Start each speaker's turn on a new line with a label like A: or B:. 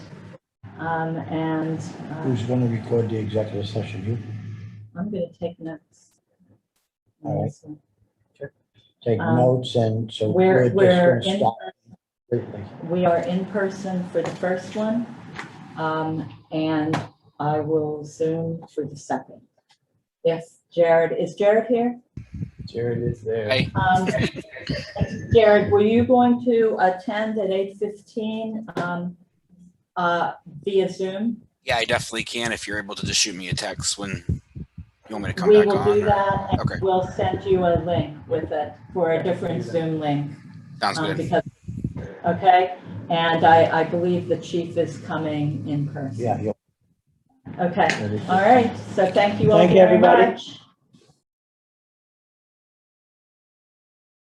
A: Um, and, uh,
B: Who's gonna record the executive session? You
A: I'm gonna take notes. on
B: All right.
A: this one.
B: take
A: Um,
B: notes and so
A: We're,
B: we're just
A: we're
B: gonna
A: in,
B: stop completely.
A: we are in person for the first one. Um, and I will Zoom for the second. Yes, Jared, is Jared here?
C: Jared is there.
D: Hey.
A: Um, Jared, were you going to attend at eight fifteen, um, uh, via Zoom?
D: Yeah, I definitely can if you're able to just shoot me a text when you want me to come
A: We
D: back
A: will
D: on.
A: do
D: or-
A: that
D: Okay.
A: and we'll send you a link with it for a different Zoom link.
D: Sounds
A: um,
D: good.
A: because- Okay, and I, I believe the chief is coming in person.
B: Yeah. you'll-
A: Okay, all right, so thank you all
B: Thank you,
A: very
B: everybody.
A: much.